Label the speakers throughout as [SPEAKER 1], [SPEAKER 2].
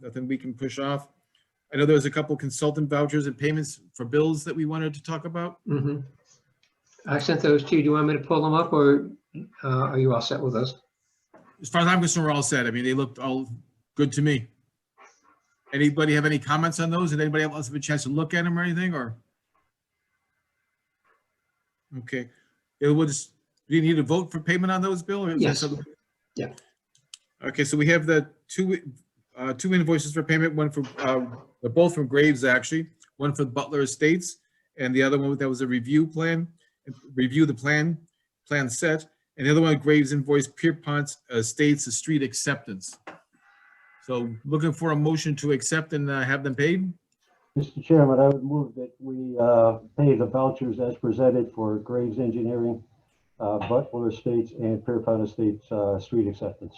[SPEAKER 1] nothing we can push off. I know there was a couple consultant vouchers and payments for bills that we wanted to talk about.
[SPEAKER 2] Mm-hmm. I sent those to you. Do you want me to pull them up or uh, are you all set with us?
[SPEAKER 1] As far as I'm concerned, we're all set. I mean, they looked all good to me. Anybody have any comments on those? Did anybody else have a chance to look at them or anything, or? Okay, it was, do you need a vote for payment on those, Bill? or is that
[SPEAKER 2] Yes.
[SPEAKER 1] something-
[SPEAKER 2] Yeah.
[SPEAKER 1] Okay, so we have the two, uh, two invoices for payment, one for, uh, they're both from Graves, actually. One for Butler Estates, and the other one, that was a review plan, review the plan, plan set. And the other one, Graves invoice Pierpont Estates, the street acceptance. So looking for a motion to accept and uh, have them paid?
[SPEAKER 3] Mr. Chairman, I would move that we uh, pay the vouchers as presented for Graves Engineering, uh, Butler Estates, and Pierpont Estates uh, Street Acceptance.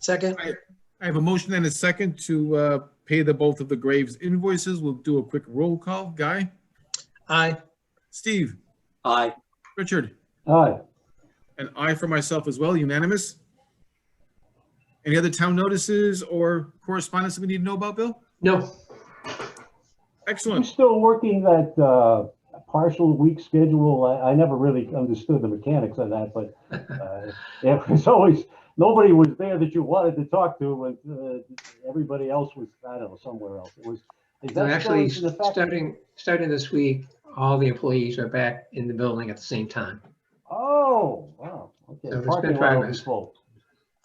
[SPEAKER 4] Second,
[SPEAKER 1] I have a motion and a second to uh, pay the both of the Graves invoices. We'll do a quick roll call. Guy?
[SPEAKER 4] aye.
[SPEAKER 1] Steve?
[SPEAKER 5] aye,
[SPEAKER 1] Richard?
[SPEAKER 3] Aye.
[SPEAKER 1] An aye for myself as well, unanimous. Any other town notices or correspondence that we need to know about, Bill?
[SPEAKER 2] No,
[SPEAKER 3] I'm
[SPEAKER 1] Excellent.
[SPEAKER 3] still working that uh, partial week schedule. I, I never really understood the mechanics of that, but uh, it was always, nobody was there that you wanted to talk to, but uh, everybody else was, I don't know, somewhere else. It was. is
[SPEAKER 2] they're
[SPEAKER 3] that still
[SPEAKER 2] actually
[SPEAKER 3] in effect?
[SPEAKER 2] starting, starting this week, all the employees are back in the building at the same time.
[SPEAKER 3] Oh, wow,
[SPEAKER 2] So
[SPEAKER 3] okay.
[SPEAKER 2] it's
[SPEAKER 3] Parking
[SPEAKER 2] been
[SPEAKER 3] lot will be
[SPEAKER 2] progress.
[SPEAKER 3] full.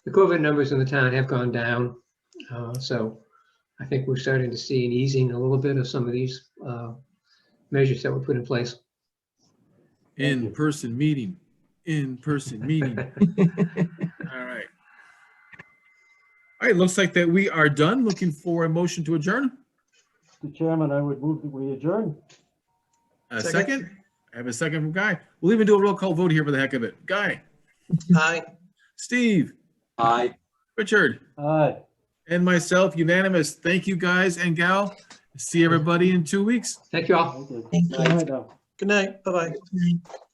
[SPEAKER 2] The COVID numbers in the town have gone down. uh, So I think we're starting to see an easing a little bit of some of these uh, measures that were put in place.
[SPEAKER 1] In-person meeting, in-person meeting. All right. All right, looks like that we are done. Looking for a motion to adjourn.
[SPEAKER 3] Mr. Chairman, I would move that we adjourn.
[SPEAKER 1] A
[SPEAKER 4] Second.
[SPEAKER 1] second? I have a second from Guy. We'll even do a roll call vote here for the heck of it. Guy,
[SPEAKER 4] Aye.
[SPEAKER 1] Steve,
[SPEAKER 5] aye.
[SPEAKER 1] Richard,
[SPEAKER 3] Aye.
[SPEAKER 1] and myself, unanimous. Thank you, guys and gal. See everybody in two weeks.
[SPEAKER 2] Thank you all.
[SPEAKER 3] Thank you.
[SPEAKER 4] Thank you.
[SPEAKER 3] All right, now.
[SPEAKER 4] Good night. Bye-bye.